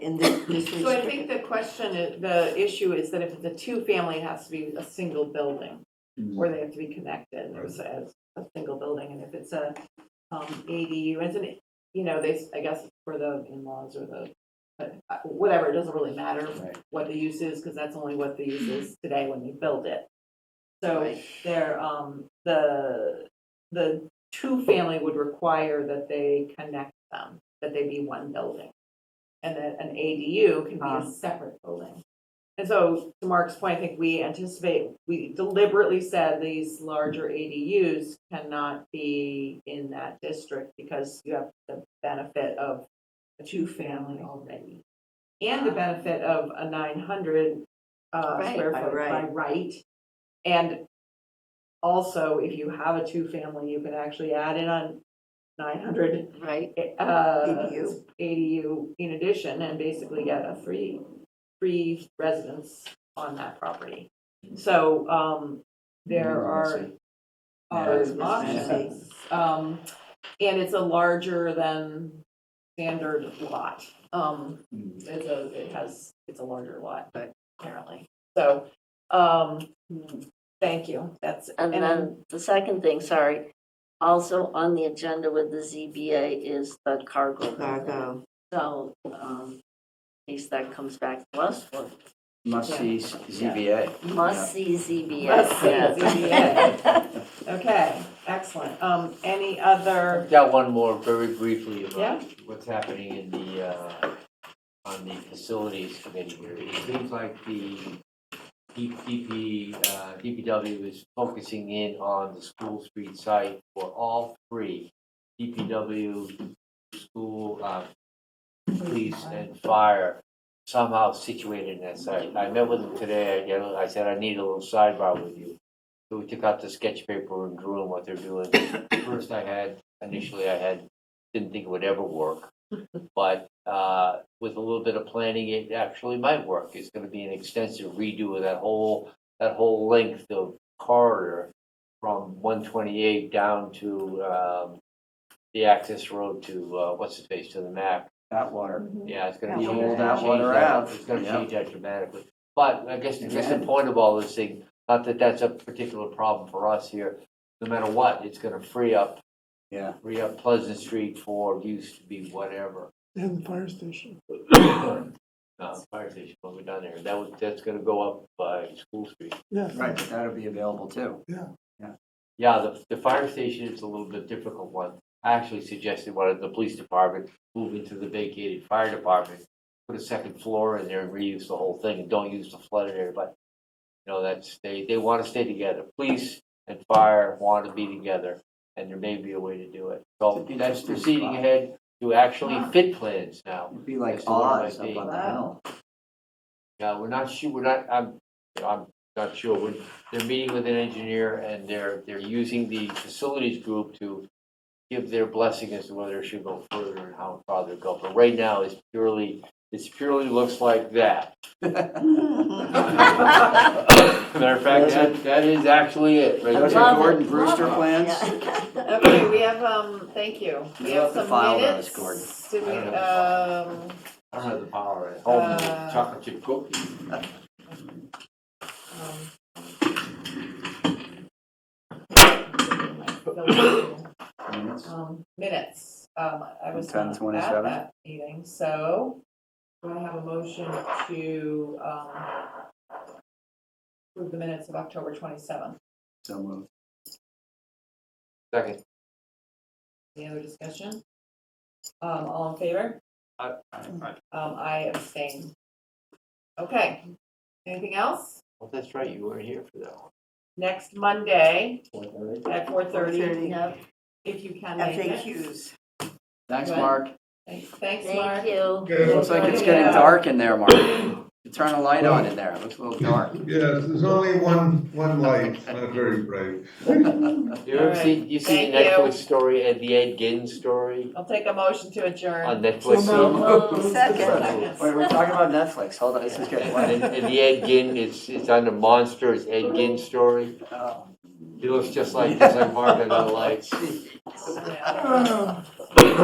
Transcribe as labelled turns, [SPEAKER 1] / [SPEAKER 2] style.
[SPEAKER 1] in this business.
[SPEAKER 2] So I think the question, is- the issue is that if it's a two-family, it has to be a single building, or they have to be connected as, as a single building, and if it's a um, ADU, as an, you know, they, s- I guess for the in-laws or the, but, uh, whatever, it doesn't really matter
[SPEAKER 3] Right.
[SPEAKER 2] what the use is, because that's only what the use is today when you build it. So there, um, the, the two-family would require that they connect them, um, that they be one building. And that an ADU can be
[SPEAKER 1] Ah.
[SPEAKER 2] a separate building. And so, to Mark's point, I think we anticipate, we deliberately said these larger ADUs cannot be in that district because you have the benefit of a two-family already. And the benefit of a nine hundred, uh,
[SPEAKER 1] Ah. Right,
[SPEAKER 2] square
[SPEAKER 1] by
[SPEAKER 2] foot by
[SPEAKER 1] right.
[SPEAKER 2] right. And also, if you have a two-family, you can actually add in on nine hundred
[SPEAKER 1] Right,
[SPEAKER 2] uh,
[SPEAKER 1] ADU.
[SPEAKER 2] ADU in addition and basically get a three, three residents on that property. So, um, there are,
[SPEAKER 3] Yeah,
[SPEAKER 2] are
[SPEAKER 3] it's
[SPEAKER 2] options. Um, and it's a larger than standard lot. Um,
[SPEAKER 3] Mm.
[SPEAKER 2] it's a, it has, it's a larger lot,
[SPEAKER 1] Right.
[SPEAKER 2] apparently. So, um, thank you. That's,
[SPEAKER 4] And then the second thing, sorry, also on the agenda with the ZBA is the cargo. building.
[SPEAKER 1] cargo,
[SPEAKER 4] So, um, at least that comes back to us for
[SPEAKER 3] Must see ZBA.
[SPEAKER 4] must see ZBA.
[SPEAKER 2] Must see
[SPEAKER 4] yeah.
[SPEAKER 2] ZBA. Okay, excellent. Um, any other,
[SPEAKER 5] I've Got one more very briefly
[SPEAKER 2] Yeah.
[SPEAKER 5] about what's happening in the, uh, on the facilities committee here. It seems like the DP, uh, DPW is focusing in on the school street site for all three. DPW, school, uh, police and fire somehow situated in that site. I met with them today, I, get a- I said, I need a little sidebar with you. So we took out the sketch paper and drew on what they're doing. First I had, initially I had, didn't think it would ever work. But, uh, with a little bit of planning, it actually might work. It's gonna be an extensive redo of that whole, that whole length of corridor from one twenty-eight down to, um, the access road to, uh, what's his face, to the map.
[SPEAKER 3] That water.
[SPEAKER 5] Yeah, it's gonna
[SPEAKER 1] Yeah,
[SPEAKER 5] be.
[SPEAKER 1] we'll
[SPEAKER 5] change
[SPEAKER 3] that one around.
[SPEAKER 5] It's gonna
[SPEAKER 3] Yep.
[SPEAKER 5] change that dramatically. But I guess, I guess the
[SPEAKER 3] Yeah.
[SPEAKER 5] point of all this thing, not that that's a particular problem for us here, no matter what, it's gonna free up,
[SPEAKER 3] Yeah.
[SPEAKER 5] free up Pleasant Street for use to be whatever.
[SPEAKER 6] And the fire station.
[SPEAKER 5] Uh, fire station, what we done there, that was, that's gonna go up by School Street.
[SPEAKER 6] Yeah.
[SPEAKER 3] Right, but that'll be available too.
[SPEAKER 5] Yeah, the, the fire station is a little bit difficult one. I actually suggested one of the police department move into the vacated fire department, put a second floor in there and reuse the whole thing and don't use the flooded area, but you know, that's, they, they want to stay together. Police and fire want to be together and there may be a way to do it. So that's proceeding ahead to actually fit plans now.
[SPEAKER 3] It'd be like
[SPEAKER 5] That's the one
[SPEAKER 3] Oz
[SPEAKER 5] might
[SPEAKER 3] up
[SPEAKER 5] be.
[SPEAKER 3] on the hill.
[SPEAKER 5] Yeah, we're not sure, we're not, I'm, I'm not sure, we're, they're meeting with an engineer and they're, they're using the facilities group to give their blessing as to whether it should go further and how far they go, but right now it's purely, it's purely looks like that. Matter of fact, that, that is actually it. right
[SPEAKER 3] Those
[SPEAKER 4] Love
[SPEAKER 5] there.
[SPEAKER 3] are
[SPEAKER 4] it,
[SPEAKER 3] Gordon Brewster
[SPEAKER 4] love it,
[SPEAKER 3] plans?
[SPEAKER 4] yeah.
[SPEAKER 2] okay, we have, um, thank you. We have
[SPEAKER 3] You'll have to
[SPEAKER 2] some
[SPEAKER 3] file those,
[SPEAKER 2] minutes.
[SPEAKER 3] Gordon.
[SPEAKER 2] Do we,
[SPEAKER 5] I don't
[SPEAKER 2] um,
[SPEAKER 5] I don't have the power at home,
[SPEAKER 2] Uh,
[SPEAKER 5] chocolate chip cookies.
[SPEAKER 2] um, um, minutes. Um, I was not at
[SPEAKER 3] 10:27.
[SPEAKER 2] that meeting, so do I have a motion to, um, approve the minutes of October twenty-seventh?
[SPEAKER 3] So moved.
[SPEAKER 5] Second,
[SPEAKER 2] Any other discussion? Um, all in favor?
[SPEAKER 5] Aye.
[SPEAKER 2] Um, I abstain. Okay, anything else?
[SPEAKER 5] well, Oh, that's right, you weren't here for that
[SPEAKER 2] Next Monday
[SPEAKER 5] one.
[SPEAKER 2] at four thirty,
[SPEAKER 1] thirty,
[SPEAKER 4] Yep,
[SPEAKER 2] if you can make it.
[SPEAKER 1] FAQs.
[SPEAKER 3] Thanks,
[SPEAKER 2] Right.
[SPEAKER 3] Mark.
[SPEAKER 2] Thanks- Thanks, Mark.
[SPEAKER 4] thank you.
[SPEAKER 3] Looks like it's getting
[SPEAKER 2] Yeah.
[SPEAKER 3] dark in there, Mark. You Turn a light on in there. It looks a little dark.
[SPEAKER 7] Yes, there's only one, one light, it's not very bright.
[SPEAKER 5] You ever
[SPEAKER 2] Alright,
[SPEAKER 5] see, you see the
[SPEAKER 2] thank you.
[SPEAKER 5] Netflix story, and the Ed Gein story
[SPEAKER 2] I'll take a motion to adjourn.
[SPEAKER 5] on Netflix?
[SPEAKER 6] So
[SPEAKER 1] Second.
[SPEAKER 3] Wait, we're talking about Netflix. Hold on, this is getting
[SPEAKER 5] And,
[SPEAKER 3] late.
[SPEAKER 5] and the Ed Gein, it's, it's on the monster, it's Ed Gein story.
[SPEAKER 3] Oh.
[SPEAKER 5] He looks just like, just like Marvin on the lights.
[SPEAKER 2] Yeah.
[SPEAKER 6] Oh.